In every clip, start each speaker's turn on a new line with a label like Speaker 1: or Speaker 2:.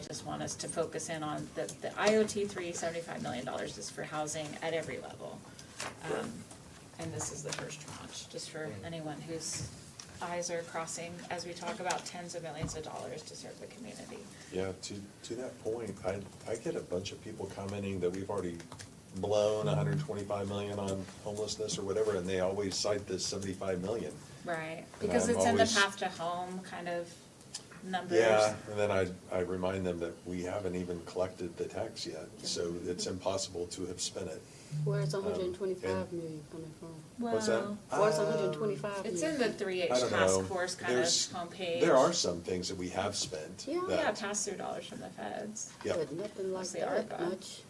Speaker 1: I just want us to focus in on the, the IOT three seventy-five million dollars is for housing at every level. Um, and this is the first tranche, just for anyone whose eyes are crossing as we talk about tens of millions of dollars to serve the community.
Speaker 2: Yeah, to, to that point, I, I get a bunch of people commenting that we've already blown hundred and twenty-five million on homelessness or whatever, and they always cite this seventy-five million.
Speaker 1: Right,
Speaker 2: And
Speaker 1: because
Speaker 2: I'm
Speaker 1: it's in the
Speaker 2: always-
Speaker 1: path to home kind of numbers.
Speaker 2: Yeah, and then I, I remind them that we haven't even collected the tax yet, so it's impossible to have spent it.
Speaker 3: Where's a hundred
Speaker 2: Um,
Speaker 3: and twenty-five
Speaker 2: and-
Speaker 3: million coming from?
Speaker 2: What's that?
Speaker 1: Well,
Speaker 3: Where's a
Speaker 2: Um,
Speaker 3: hundred and twenty-five million?
Speaker 1: It's in the three H
Speaker 2: I don't know.
Speaker 1: task force kind of
Speaker 2: There's-
Speaker 1: homepage.
Speaker 2: There are some things that we have spent
Speaker 3: Yeah.
Speaker 1: Yeah,
Speaker 2: that,
Speaker 1: pass-through dollars from the feds.
Speaker 2: yeah,
Speaker 3: But nothing like
Speaker 1: Mostly
Speaker 3: that
Speaker 1: ARPA.
Speaker 3: much.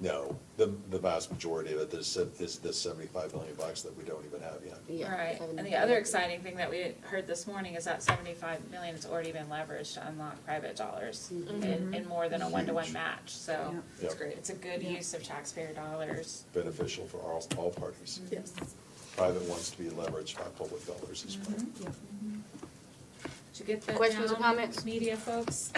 Speaker 2: no, the, the vast majority of it is, is this seventy-five million bucks that we don't even have yet.
Speaker 3: Yeah,
Speaker 1: Right,
Speaker 3: haven't
Speaker 1: and the
Speaker 3: done
Speaker 1: other
Speaker 3: it.
Speaker 1: exciting thing that we heard this morning is that seventy-five million has already been leveraged to unlock private dollars in, in more than a one-to-one match, so.
Speaker 2: Mm-hmm. Yeah. It's great.
Speaker 1: It's a good use of taxpayer dollars.
Speaker 2: Beneficial for all, all parties.
Speaker 4: Yes.
Speaker 2: private wants to be leveraged by public dollars as well.
Speaker 1: Did you get the
Speaker 3: Questions or
Speaker 1: down,
Speaker 3: comments?
Speaker 1: Media folks?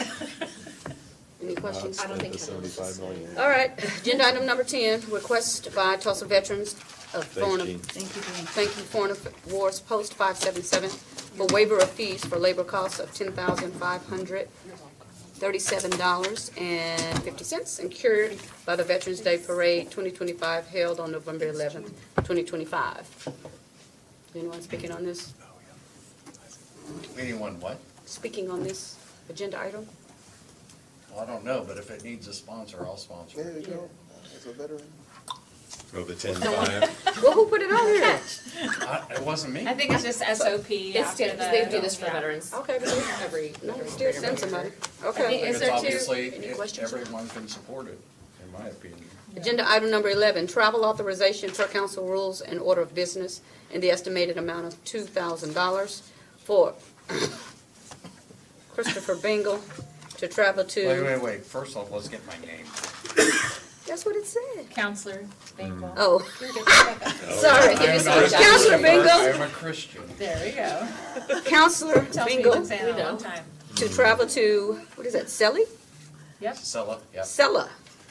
Speaker 3: Any questions?
Speaker 2: Not
Speaker 4: I don't
Speaker 2: spent
Speaker 4: think
Speaker 2: the
Speaker 4: so.
Speaker 2: seventy-five million.
Speaker 3: All right, agenda item number ten, request by Tulsa veterans of
Speaker 2: Thanks,
Speaker 3: foreign,
Speaker 2: Gene.
Speaker 4: Thank you, Jane.
Speaker 3: thank you, foreign wars post five seven seven for waiver of fees for labor costs of ten thousand five hundred thirty-seven dollars and fifty cents incurred by the Veterans Day Parade twenty twenty-five held on November eleventh, twenty twenty-five. Anyone speaking on this?
Speaker 5: Anyone what?
Speaker 3: Speaking on this agenda item?
Speaker 5: Well, I don't know, but if it needs a sponsor, I'll sponsor it.
Speaker 3: Yeah.
Speaker 6: As a veteran.
Speaker 2: Oh, the ten-five,
Speaker 3: Well, who put it on here?
Speaker 5: I- It wasn't me.
Speaker 1: I think it's just SOP
Speaker 7: It's
Speaker 1: after
Speaker 7: standard,
Speaker 1: the.
Speaker 7: they do this for
Speaker 1: yeah.
Speaker 7: veterans
Speaker 3: Okay, but it's-
Speaker 7: every,
Speaker 3: no,
Speaker 7: every
Speaker 3: still
Speaker 7: year.
Speaker 3: send somebody.
Speaker 1: I
Speaker 3: Okay.
Speaker 1: think Is
Speaker 5: It's
Speaker 1: there two-
Speaker 5: obviously,
Speaker 3: any
Speaker 5: it-
Speaker 3: questions?
Speaker 5: everyone can support it, in my opinion.
Speaker 3: Agenda item number 11, travel authorization per council rules and order of business in the estimated amount of $2,000 for Christopher Bingle to travel
Speaker 5: Wait,
Speaker 3: to,
Speaker 5: wait, wait, first off, let's get my name.
Speaker 3: that's what it said.
Speaker 1: Counselor,
Speaker 2: Mm.
Speaker 1: Bengel.
Speaker 3: Oh,
Speaker 5: Oh.
Speaker 3: sorry.
Speaker 5: I am
Speaker 3: It's
Speaker 5: not a
Speaker 3: Counselor
Speaker 5: believer, I
Speaker 3: Bingle,
Speaker 5: am a Christian.
Speaker 1: There we go.
Speaker 3: Counselor
Speaker 1: Tells me
Speaker 3: Bingle
Speaker 1: it's been a
Speaker 7: we
Speaker 1: long
Speaker 7: know.
Speaker 1: time.
Speaker 3: to travel to, what is that, Selly?
Speaker 1: Yep.
Speaker 5: Sella, yeah.
Speaker 3: Celle,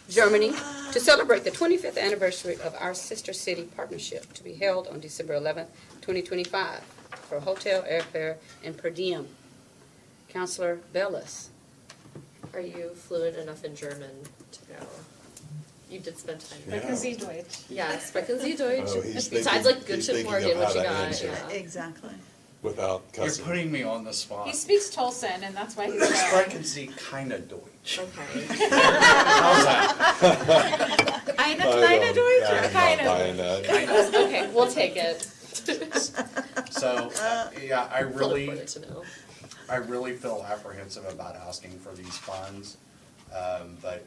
Speaker 3: Germany, to celebrate the 25th anniversary of our sister city partnership to be held on December 11th, 2025, for hotel, airfare, and per diem. Counselor Bellis.
Speaker 7: Are you fluent enough in German to go? You did spend time.
Speaker 2: Yeah.
Speaker 1: Because he's Deutsch.
Speaker 7: Yeah, sprechen Sie Deutsch?
Speaker 2: Oh, he's
Speaker 7: Besides
Speaker 2: thinking-
Speaker 7: like good
Speaker 2: he's
Speaker 7: shit
Speaker 2: thinking
Speaker 7: Morgan,
Speaker 2: of how
Speaker 7: what you
Speaker 2: to
Speaker 7: got,
Speaker 2: answer
Speaker 7: yeah.
Speaker 4: Exactly.
Speaker 2: without
Speaker 5: You're
Speaker 2: cussing.
Speaker 5: putting me on the spot.
Speaker 1: He speaks Tolson, and that's why he's there.
Speaker 5: Sprechen Sie keine Deutsch.
Speaker 7: Okay.
Speaker 5: How's that?
Speaker 1: Eine
Speaker 2: I
Speaker 1: kleine
Speaker 2: don't-
Speaker 1: Deutsche,
Speaker 2: yeah, I'm
Speaker 1: keine.
Speaker 2: not buying that.
Speaker 7: Okay, we'll take it.
Speaker 5: So, uh, yeah, I
Speaker 7: Philip
Speaker 5: really,
Speaker 7: wanted to know.
Speaker 5: I really feel apprehensive about asking for these funds, um, but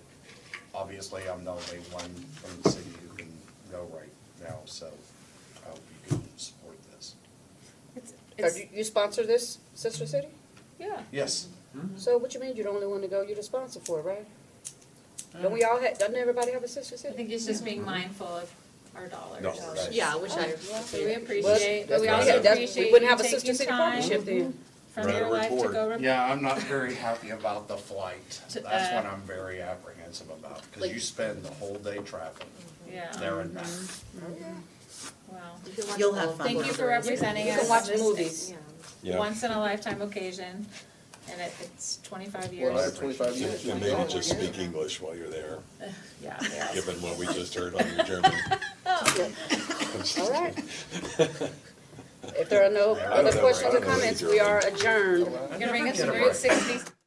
Speaker 5: obviously I'm the only one from the city who can go right now, so I hope you can support this.
Speaker 1: It's-
Speaker 3: Or
Speaker 1: it's-
Speaker 3: do you sponsor this sister city?
Speaker 1: Yeah.
Speaker 5: Yes,
Speaker 1: Mm-hmm.
Speaker 3: So what you mean you're the only one to go, you're the sponsor for it, right? Don't we all, ha- doesn't everybody have a sister
Speaker 1: Uh-huh. I
Speaker 3: city?
Speaker 1: think it's just being mindful of our dollars.
Speaker 2: Dollars.
Speaker 7: Yeah, which I.
Speaker 1: So we
Speaker 3: Well,
Speaker 1: appreciate, but we
Speaker 2: that's
Speaker 1: also
Speaker 2: right. That's-
Speaker 1: appreciate
Speaker 3: We
Speaker 1: you
Speaker 3: wouldn't have a sister
Speaker 1: taking
Speaker 3: city
Speaker 1: time
Speaker 3: partnership then.
Speaker 1: from
Speaker 2: Write a
Speaker 1: your life to
Speaker 2: report.
Speaker 1: go. re-
Speaker 5: yeah, I'm not very happy about the flight.
Speaker 1: To,
Speaker 5: That's what
Speaker 1: uh,
Speaker 5: I'm very apprehensive about, because
Speaker 7: Like-
Speaker 5: you spend the whole day traveling
Speaker 1: Yeah,
Speaker 5: there and back.
Speaker 1: wow.
Speaker 7: You can watch
Speaker 4: You'll
Speaker 7: the
Speaker 4: have
Speaker 7: whole
Speaker 4: fun.
Speaker 7: thing
Speaker 1: Thank you for
Speaker 7: afterwards.
Speaker 1: representing
Speaker 3: You
Speaker 1: us.
Speaker 3: can watch
Speaker 1: This-
Speaker 3: movies.
Speaker 2: Yeah,
Speaker 1: Once in a lifetime occasion, and it, it's twenty-five
Speaker 6: Well,
Speaker 1: years.
Speaker 6: twenty-five years.
Speaker 2: and maybe just speak English while you're there,
Speaker 1: Yeah, yeah.
Speaker 2: given what we just heard on your German.
Speaker 3: All right. If there are no
Speaker 5: I
Speaker 2: don't
Speaker 3: other
Speaker 2: know.
Speaker 3: questions
Speaker 2: I
Speaker 3: or
Speaker 2: don't know what
Speaker 3: comments,
Speaker 2: you're
Speaker 3: we are adjourned.
Speaker 1: You're gonna bring us
Speaker 5: Get
Speaker 1: to
Speaker 5: a
Speaker 1: Route
Speaker 5: break.
Speaker 1: sixty